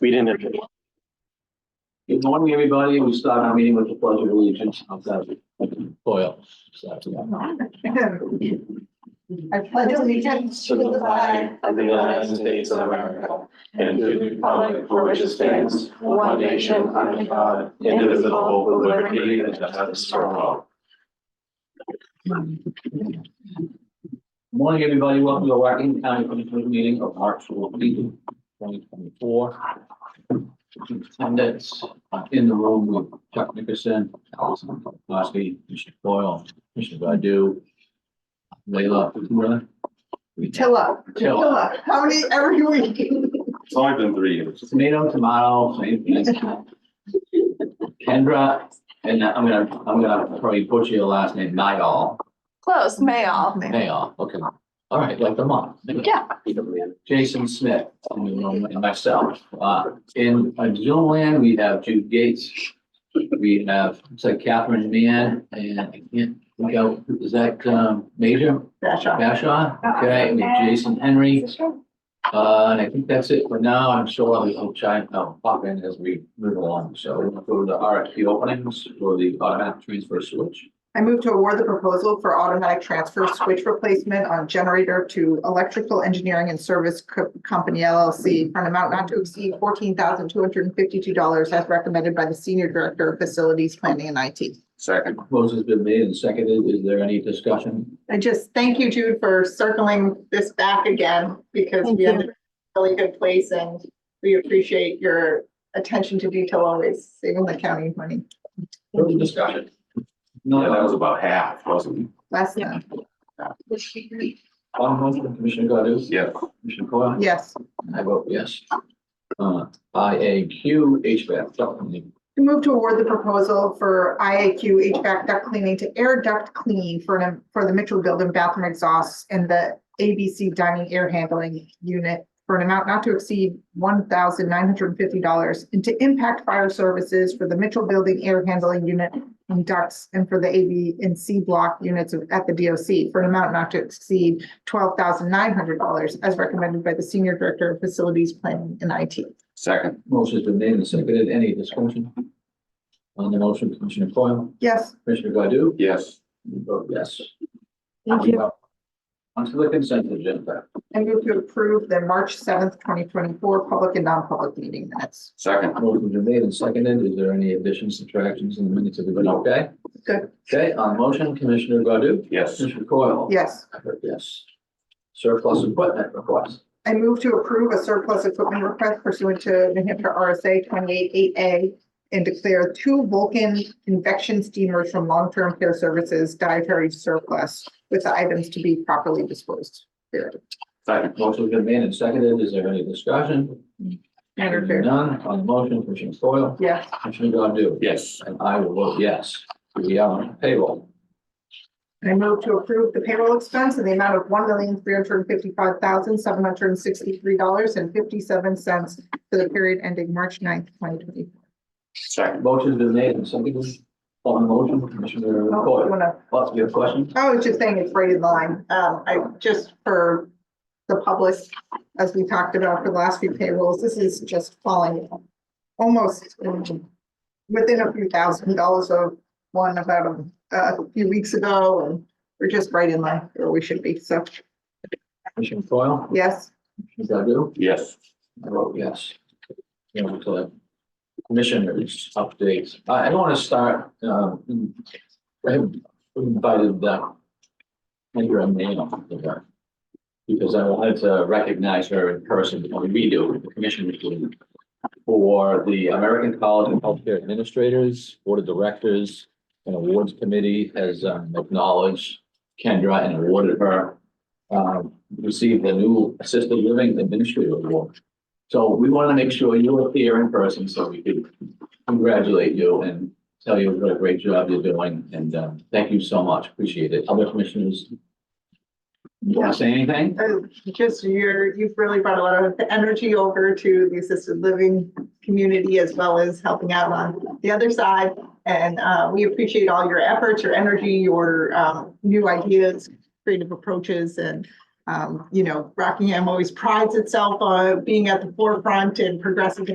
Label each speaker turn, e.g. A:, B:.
A: We didn't.
B: Good morning, everybody. We start our meeting with the pledge of allegiance of that oil.
C: I pledge allegiance to the flag
A: Of the United States of America and to the republic for which it stands, one nation under God, indivisible, with liberty and justice for all.
B: Morning, everybody. Welcome to our Wackenham County Commissioners meeting of March fourteenth, twenty twenty-four. Attendance uh, in the room with Chuck Nickerson, Allison Gillespie, Mr. Boyle, Mr. Godu. Leila, Miller,
C: Tilla. Tilla. How many every week?
A: It's only been three years.
B: tomato, tomato, same thing. Kendra, and I'm gonna, I'm gonna probably butcher your last name, Niall.
D: Close, Mayall.
B: Mayoff, okay. All right, like the month.
D: Yeah.
B: Jason Smith, and myself. Uh, in uh, Zoom land, we have Jude Gates. We have, it's like Catherine Mann and I can't think out, is that, um, Major Bashaw? Okay, and Jason Henry. Uh, and I think that's it for now. I'm sure I'll, I'll try and I'll pop in as we move along. So we're gonna go to the RFP openings for the automatic transfer switch.
C: I move to award the proposal for automatic transfer switch replacement on generator to Electrical Engineering and Service Co- Company LLC for an amount not to exceed fourteen thousand two hundred and fifty-two dollars as recommended by the Senior Director of Facilities Planning and IT.
A: Second.
B: Proposal has been made and seconded. Is there any discussion?
C: I just thank you, Jude, for circling this back again because we have a really good place and we appreciate your attention to detail always saving the county money.
B: Further discussion?
A: Yeah, that
B: No,
A: was about half, wasn't
C: Last time,
B: on motion, Commissioner Godu?
A: it? Yeah.
B: Commissioner Coyle?
C: yes.
B: And I vote yes. Uh, I A Q HVAC, supplement.
C: I Move to award the proposal for IAQ HVAC duct cleaning to air duct clean for an, for the Mitchell Building bathroom exhausts and the ABC dining air handling unit for an amount not to exceed one thousand nine hundred and fifty dollars and to impact fire services for the Mitchell Building air handling unit and ducts and for the A, B, and C block units of- at the DOC for an amount not to exceed twelve thousand nine hundred dollars as recommended by the Senior Director of Facilities Planning and IT.
A: Second.
B: motion's been made and seconded. Any discussion? On the motion, Commissioner Coyle?
C: Yes.
B: Commissioner Godu?
A: Yes.
B: You Vote yes.
D: Thank you.
B: On to the consent agenda.
C: I move to approve the March seventh, twenty twenty-four public and non-public meeting minutes.
A: Second.
B: Motion's been made and seconded. Is there any additions, subtractions in the minutes? Everybody okay?
C: Good.
B: Okay, on motion, Commissioner Godu?
A: Yes.
B: Commissioner Coyle?
C: Yes,
B: I vote yes. Surplus equipment request.
C: I move to approve a surplus equipment request pursuant to New Hampshire RSA twenty-eight eight A and declare two Vulcan infection steamers from long-term care services dietary surplus with the items to be properly disposed.
A: Second.
B: Motion's been made and seconded. Is there any discussion? Hearing
C: Madam Chair.
B: None on the motion, Commissioner Foil,
C: Yes,
B: Commissioner Godu?
A: Yes.
B: And I will vote yes. We are on payroll.
C: I move to approve the payroll expense in the amount of one million, three hundred and fifty-five thousand, seven hundred and sixty-three dollars and fifty-seven cents for the period ending March 9th, twenty twenty-four.
A: Second.
B: Motion's been made and seconded. On the motion, Commissioner
C: Oh, you
B: Foil,
C: wanna-
B: lots of your questions?
C: I was just saying it's right in line. Um, I, just for the public, as we talked about for the last few payrolls, this is just falling almost um, within a few thousand dollars of one about um, a few weeks ago, and we're just right in line where we should be. So,
B: Commissioner Foil,
C: yes,
B: Commissioner Godu?
A: Yes.
B: I vote yes. You know, to the commissioners updates. I, I don't want to start, um, I have invited, uh, Andrea Mann up there. Because I wanted to recognize her in person, I mean, we do, the commissioners do. For the American College of Healthcare Administrators, Board of Directors, and Awards Committee has um, acknowledged Kendra and awarded her. Um, received the new Assisted Living Administrator Award. So we want to make sure you are here in person so we can congratulate you and tell you what a great job you're doing. And um, thank you so much. Appreciate it. Other commissioners? Want to say anything?
C: Uh, just you're, you've really brought a lot of energy over to the assisted living community as well as helping out on the other side. And uh, we appreciate all your efforts, your energy, your um, new ideas, creative approaches, and Um, you know, Rockingham always prides itself on being at the forefront and progressive